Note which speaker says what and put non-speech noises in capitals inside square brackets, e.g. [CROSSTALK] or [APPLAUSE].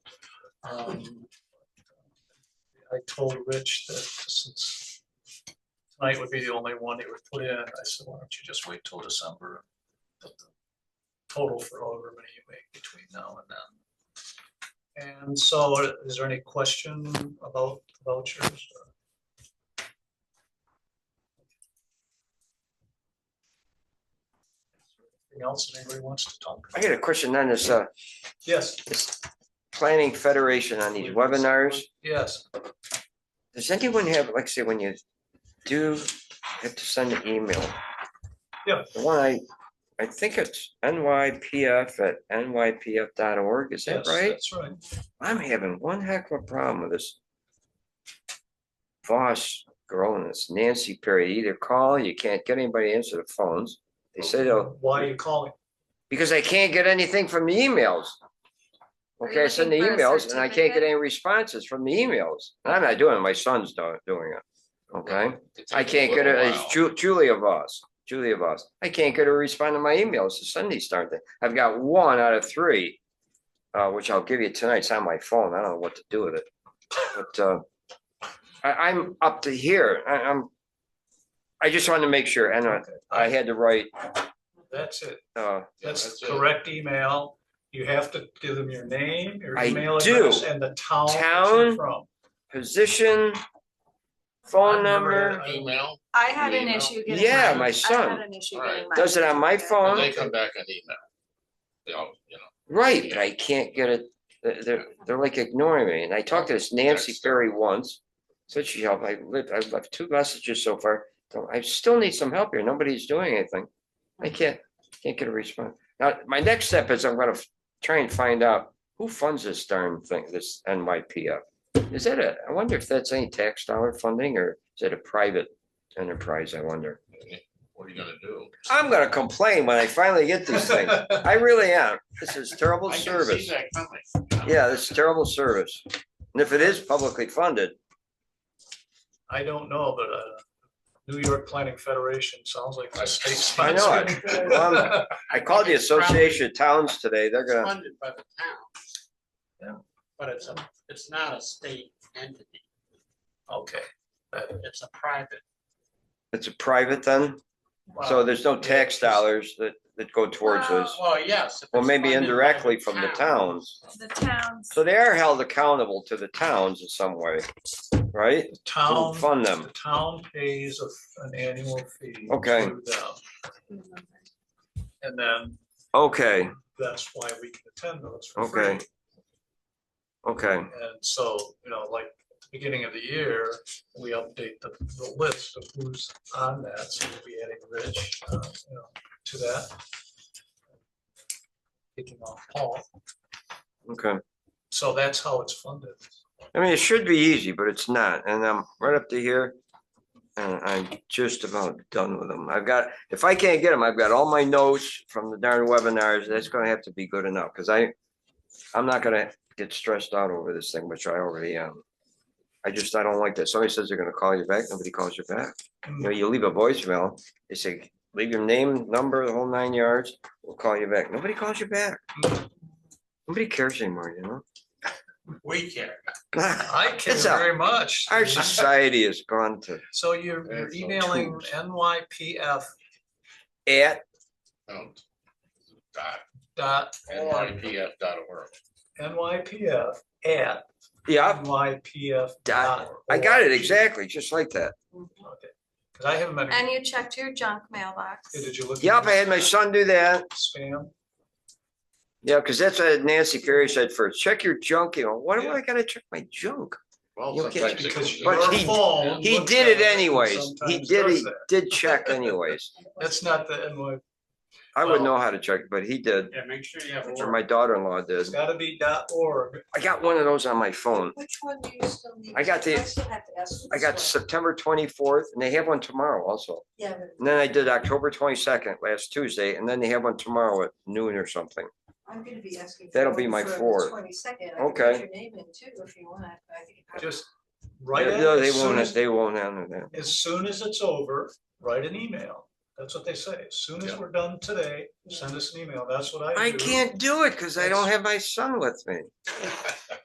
Speaker 1: Um, I told Rich that since tonight would be the only one he would put in, I said, why don't you just wait till December? and put the Total for however many you make between now and then. And so is there any question about the vouchers? Anything else anybody wants to talk?
Speaker 2: I got a question on this, uh,
Speaker 1: Yes,
Speaker 2: planning federation on these webinars.
Speaker 1: yes.
Speaker 2: Does anyone have, like, say, when you do, have to send an email?
Speaker 1: Yeah.
Speaker 2: The one I, I think it's NYPF at NYPF.org, is that
Speaker 1: yes,
Speaker 2: right?
Speaker 1: That's right.
Speaker 2: I'm having one heck of a problem with this. Voss girl and this Nancy Perry, either call, you can't get anybody to answer the phones. They say they'll,
Speaker 1: Why are you calling?
Speaker 2: because I can't get anything from the emails.
Speaker 3: Are you
Speaker 2: Okay, I send the
Speaker 3: looking for a
Speaker 2: emails and I can't
Speaker 3: certificate?
Speaker 2: get any responses from the emails. And I'm not doing it, my son's do- doing it. Okay, I can't get it, it's Ju- Julia Voss, Julia Voss. I can't get her to respond to my emails to send these darn things. I've got one out of three. Uh, which I'll give you tonight. It's on my phone. I don't know what to do with it. But, uh, I, I'm up to here. I, I'm. I just wanted to make sure and I, I had the right,
Speaker 1: That's it.
Speaker 2: uh,
Speaker 1: That's
Speaker 4: that's it.
Speaker 1: correct email. You have to give them your name, your
Speaker 2: I
Speaker 1: email
Speaker 2: do.
Speaker 1: address and the town. that you're
Speaker 2: Town,
Speaker 1: From.
Speaker 2: position, phone number.
Speaker 4: Email,
Speaker 3: I had an
Speaker 4: Email.
Speaker 3: issue getting.
Speaker 2: Yeah,
Speaker 3: mine.
Speaker 2: my
Speaker 3: I had
Speaker 2: son
Speaker 3: an issue
Speaker 4: Alright.
Speaker 3: getting mine.
Speaker 2: Does it on my phone?
Speaker 4: and they come back on email. They all, you know,
Speaker 2: Right, but I can't get it, they're- they're, they're like ignoring me, and I talked to this Nancy
Speaker 4: Text.
Speaker 2: Berry once. Said she helped, I lived, I've left two messages so far, So I still need some help here, nobody's doing anything. I can't, can't get a response. Now, my next step is I'm gonna f- try and find out who funds this darn thing, this NYPF. Is that a, I wonder if that's any tax dollar funding, or is it a private enterprise, I wonder?
Speaker 4: what are you gonna do?
Speaker 2: I'm gonna complain when I finally get this
Speaker 4: [LAUGHS]
Speaker 2: thing, I really am, this is terrible
Speaker 4: I can see
Speaker 2: service.
Speaker 4: that coming.
Speaker 2: Yeah, this is terrible service. And if it is publicly funded,
Speaker 1: [LAUGHS] I don't know, but uh, New York Planning Federation sounds like a state
Speaker 2: I know it.
Speaker 1: sponsored. [LAUGHS]
Speaker 2: Well, I called the Association of Towns today. They're
Speaker 5: It's
Speaker 2: gonna,
Speaker 5: funded by the town,
Speaker 1: But it's a,
Speaker 5: it's not a state entity,
Speaker 1: okay.
Speaker 5: it's a private.
Speaker 2: it's a private then, so there's no tax dollars that, that go towards this.
Speaker 5: Well, yes. if
Speaker 2: Well,
Speaker 5: it's
Speaker 2: maybe
Speaker 5: funded by
Speaker 2: indirectly from the towns.
Speaker 3: The towns.
Speaker 2: So they are held accountable to the towns in some way, right?
Speaker 1: The
Speaker 2: Who
Speaker 1: Town,
Speaker 4: Um,
Speaker 2: Fund
Speaker 1: the
Speaker 2: them.
Speaker 1: town pays a- an annual fee.
Speaker 2: Okay.
Speaker 1: to them, And then
Speaker 2: Okay,
Speaker 1: that's why we can attend those for free.
Speaker 2: okay. Okay,
Speaker 1: And so, you know, like at the beginning of the year, we update the, the list of who's on that. So we'll be adding Rich, uh, you know, to that. Taking off Paul.
Speaker 2: okay.
Speaker 1: So that's how it's funded.
Speaker 2: I mean, it should be easy, but it's not, and I'm right up to here. And I'm just about done with them. I've got, if I can't get them, I've got all my notes from the darn webinars, that's gonna have to be good enough, cause I. I'm not gonna get stressed out over this thing, which I already am. I just, I don't like that. Somebody says they're gonna call you back, nobody calls you back. You know, you leave a voicemail, they say, leave your name, number, the whole nine yards, we'll call you back. Nobody calls you back. Nobody cares anymore, you know? [LAUGHS]
Speaker 5: We care.
Speaker 1: I care
Speaker 2: It's a-
Speaker 1: very much.
Speaker 2: Our society has gone to
Speaker 1: So you're you're
Speaker 4: It's a
Speaker 1: emailing
Speaker 2: tools.
Speaker 1: NYPF
Speaker 2: at,
Speaker 4: Don't. Dot,
Speaker 1: dot org,
Speaker 4: NYPF dot org.
Speaker 1: NYPF at
Speaker 2: yeah,
Speaker 1: NYPF.
Speaker 2: dot, I got it exactly, just like that.
Speaker 1: Cause I haven't been,
Speaker 3: And you checked your junk mailbox.
Speaker 1: did you look? at
Speaker 2: Yep, I had my son do that.
Speaker 1: Spam.
Speaker 2: Yeah, because that's what Nancy Carey said first, check your junk, you know, what do
Speaker 4: Yeah.
Speaker 2: I gotta check my junk?
Speaker 4: Well,
Speaker 2: You can't
Speaker 4: sometimes it
Speaker 1: Because
Speaker 4: comes
Speaker 2: But
Speaker 1: your
Speaker 4: out.
Speaker 2: he-
Speaker 1: phone
Speaker 2: He
Speaker 1: looks
Speaker 2: did
Speaker 1: at
Speaker 2: it
Speaker 1: and
Speaker 2: anyways, he
Speaker 1: sometimes
Speaker 2: did,
Speaker 1: does
Speaker 2: he
Speaker 1: that.
Speaker 2: did check anyways.
Speaker 1: That's not the NY,
Speaker 2: I wouldn't
Speaker 1: Well-
Speaker 2: know how to check, but he did,
Speaker 5: Yeah, make sure you have.
Speaker 2: or my daughter-in-law
Speaker 1: it's
Speaker 2: did.
Speaker 1: gotta be dot org.
Speaker 2: I got one of those on my phone.
Speaker 6: Which one do you still need?
Speaker 2: I got the-
Speaker 6: still have to ask you
Speaker 2: I
Speaker 6: this
Speaker 2: got
Speaker 6: one.
Speaker 2: September twenty-fourth, and they have one tomorrow also.
Speaker 6: Yeah, but
Speaker 2: And then I did October twenty-second, last Tuesday, and then they have one tomorrow at noon or something.
Speaker 6: I'm gonna be asking.
Speaker 2: That'll be my fourth.
Speaker 6: Twenty second.
Speaker 2: Okay.
Speaker 6: Your name in too, if you want, I think.
Speaker 1: Just write it,
Speaker 2: No, They
Speaker 1: as soon
Speaker 2: won't,
Speaker 1: as,
Speaker 2: they won't honor that.
Speaker 1: as soon as it's over, write an email. That's what they say. As soon as
Speaker 4: Yeah.
Speaker 1: we're done today, send us an email. That's what I do.
Speaker 2: I can't do it because I don't have my son with me.